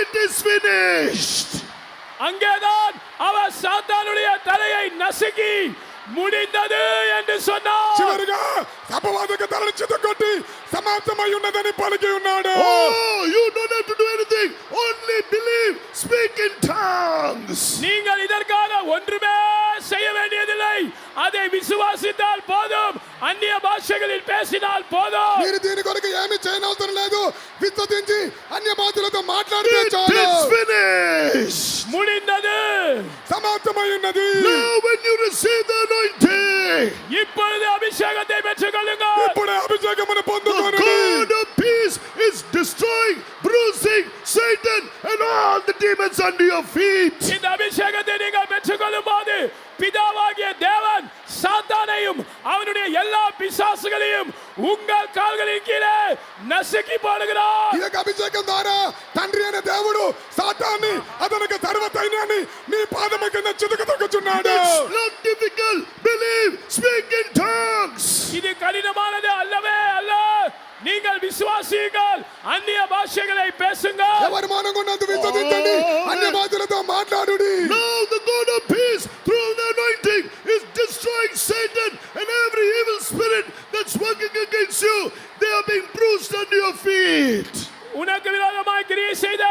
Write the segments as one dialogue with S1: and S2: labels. S1: It is finished.
S2: அங்கேதான் அவர் சாத்தானுடைய தலையை நசுக்கி முடிந்தது என்று சொன்னார்
S3: చివరిగా అపవాదక తలని చితగొట్టి సమాప్తమై ఉన్నదని పలికి ఉన్నాడు
S1: Oh, you don't have to do anything. Only believe. Speak in tongues.
S2: நீங்கள் இதற்காக ஒன்றுமே செய்ய வேண்டியதில்லை அதை விசுவாசித்தால் போதும் அந்நிய பாஷைகளில் பேசினால் போதும்
S3: మీరు దీని కొరకు ఏమి చేయనవసరం లేదు విశ్వసించి అన్య బాధ్యులతో మాట్లాడితే
S1: It
S3: చాలు
S1: is finished.
S2: முடிந்தது
S3: సమాప్తమై ఉన్నది
S1: Now, when you receive the anointing,
S2: இப்பொழுது அபிஷேகத்தை பெற்றுக் கொள்ளுங்கள்
S3: ఇప్పుడే అభిషేకమును
S1: the
S3: పొందుకోను
S1: God of peace is destroying, bruising Satan and all the demons under your feet.
S2: இந்த அபிஷேகத்தை நீங்கள் பெற்றுக்கொள்ளும் போது பிதாவாகிய தேவன் சாத்தானையும் அவனுடைய எல்லா பிசாசுகளையும் உங்கள் கால்களின் கீழே நசுக்கி போடுகிறார்
S3: ఈ యొక్క అభిషేకం ద్వారా తండ్రి అయిన దేవుడు సాతాన్ని అతనికి సర్వ సైన్యాన్ని నీ పాదము కింద చితుకు తొక్కుచున్నాడు
S1: It's not difficult. Believe, speak in tongues.
S2: இது கடினமானது அல்லவே அல்ல நீங்கள் விசுவாசியுங்கள் அந்நிய பாஷைகளை பேசுங்கள்
S3: ఎవరి మౌనంగా ఉన్నందు విశ్వసించండి అన్య బాధ్యులతో మాట్లాడుడి
S1: Now the God of peace, through the anointing, is destroying Satan and every evil spirit that's working against you. They are being bruised under your feet.
S2: உனக்கு விரோதமாய் கிரியை செய்த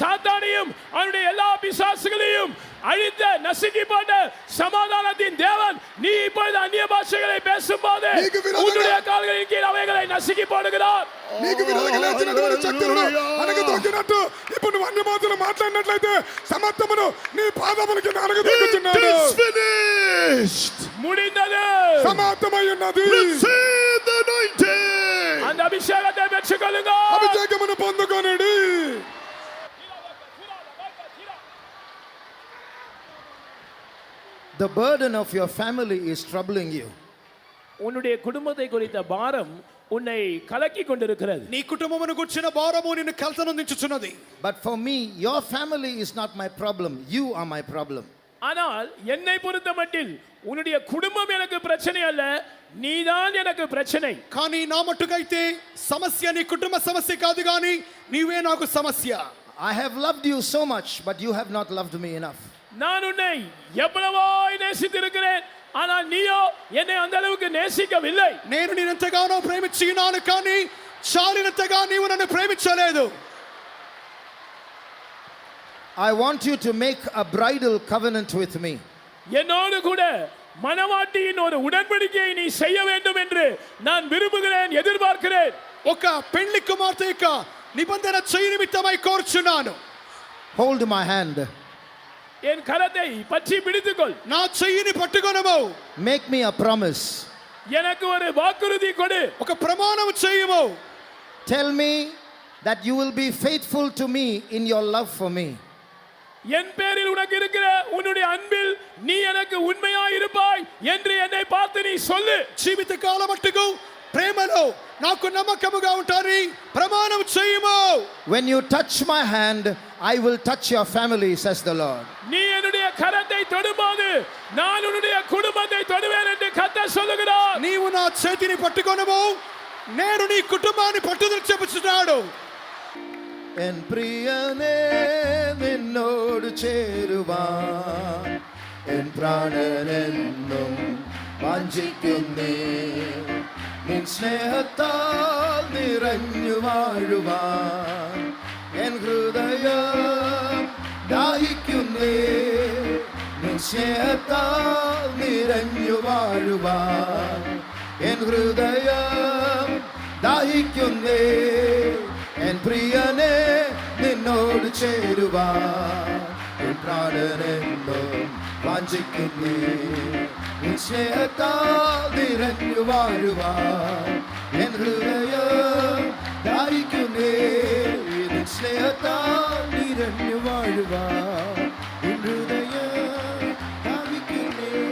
S2: சாத்தானையும் அவனுடைய எல்லா பிசாசுகளையும் அழித்த நசுக்கி போட்ட சமாதானத்தின் தேவன் நீ இப்பொழுது அந்நிய பாஷைகளை பேசும்போது
S3: நீக்கு விரோதமாய்-
S2: உன்னுடைய கால்களின் கீழ் அவைகளை நசுக்கி போடுகிறார்
S3: నీకు విరోధంగా లేచినటువంటి శక్తులను అనగ తొక్కినట్టు ఇప్పుడు నువ్వు అన్య బాధ్యులు మాట్లాడినట్లయితే సమర్థమును నీ పాదముల కింద అనగ
S1: It
S3: తొక్కుచున్నాడు
S1: is finished.
S2: முடிந்தது
S3: సమాప్తమై ఉన్నది
S1: Receive the anointing.
S2: அந்த அபிஷேகத்தை பெற்றுக்கொள்ளுங்கள்
S3: అభిషేకమును పొందుకొనుడి
S4: The burden of your family is troubling you.
S2: உன்னுடைய குடும்பத்தை குறித்த பாரம் உன்னை கலக்கி கொண்டிருக்கிறது
S5: నీ కుటుంబమును గుర్చిన భారము నిన్ను కలతనందించుచున్నది
S4: But for me, your family is not my problem. You are my problem.
S2: ஆனால் என்னை பொறுத்த மட்டில் உன்னுடைய குடும்பம் எனக்கு பிரச்சனை அல்ல நீதான் எனக்கு பிரச்சனை
S5: కానీ నా మట్టుకైతే సమస్య నీ కుటుంబ సమస్య కాదు కానీ నీవే నాకు సమస్య
S4: I have loved you so much, but you have not loved me enough.
S2: நான் உன்னை எவ்வளவோ நேசித்திருக்கிறேன் ஆனால் நீயோ என்னை அந்த அளவுக்கு நேசிக்கவில்லை
S5: నేను నేనెంతగానో ప్రేమించినాను కానీ చాలినంతగా నీవు నన్ను ప్రేమించలేదు
S4: I want you to make a bridal covenant with me.
S2: என்னோடு கூட மனவாட்டியின் ஒரு உடன்படிக்கையை நீ செய்ய வேண்டும் என்று நான் விரும்புகிறேன் எதிர்பார்க்கிறேன்
S5: ఒక పెళ్లి కుమార్తె యొక్క నిబంధన చేయి నిమిత్తమై కోరుచున్నాను
S4: Hold my hand.
S2: என் கரத்தை பற்றி பிடித்துக்கொள்
S5: నా చెయ్యిని పట్టుకొనము
S4: Make me a promise.
S2: எனக்கு ஒரு வாக்குறுதி கொடு
S5: ఒక ప్రమాణం చేయము
S4: Tell me that you will be faithful to me in your love for me.
S2: என் பேரில் உனக்கு இருக்கிற உன்னுடைய அன்பில் நீ எனக்கு உண்மையா இருப்பாய் என்று என்னை பார்த்து நீ சொல்லு
S5: జీవిత కాలం మట్టుకు ప్రేమలో నాకు నమ్మకముగా ఉంటారని ప్రమాణం చేయము
S4: When you touch my hand, I will touch your family, says the Lord.
S2: நீ என்னுடைய கரத்தை தொடும்போது நான் உன்னுடைய குடும்பத்தை தொடுவேன் என்று கத்த சொல்லுகிறார்
S5: నీవు నా చేతిని పట్టుకొనము నేను నీ కుటుంబాన్ని పట్టుదల చెప్పుచున్నాడు
S4: എൻ പ്രിയനേ നിന്നോട് ചേരുവാൻ എൻ പ്രാണനെന്നും വാഞ്ചിക്കുന്നേ നിൻ സ്നേഹത്താൽ നിറഞ്ഞു വാഴുവാൻ എൻ ഹൃദയം ദാഹിക്കുന്നേ നിൻ സ്നേഹത്താൽ നിറഞ്ഞു വാഴുവാൻ എൻ ഹൃദയം ദാഹിക്കുന്നേ എൻ പ്രിയനെ നിന്നോട് ചേരുവാൻ എൻ പ്രാണനെന്നും വാഞ്ചിക്കുന്നേ നിൻ സ്നേഹത്താൽ നിറഞ്ഞു വാഴുവാൻ എൻ ഹൃദയം ദാഹിക്കുന്നേ നിൻ സ്നേഹത്താൽ നിറഞ്ഞു വാഴുവാൻ എൻ ഹൃദയം ദാഹിക്കുന്നേ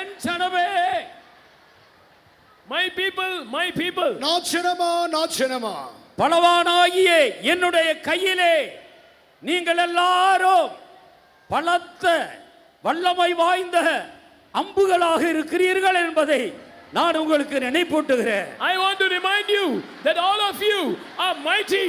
S2: என் ஜனமே மை பீப்புள் மை பீப்புள்
S5: నా జనమా నా జనమా
S2: பலவானாகிய என்னுடைய கையிலே நீங்கள் எல்லாரும் பலத்த வல்லமை வாய்ந்த அம்புகளாக இருக்கிறீர்கள் என்பதை நான் உங்களுக்கு நினைப்பூட்டுகிறேன் I want to remind you that all of you are mighty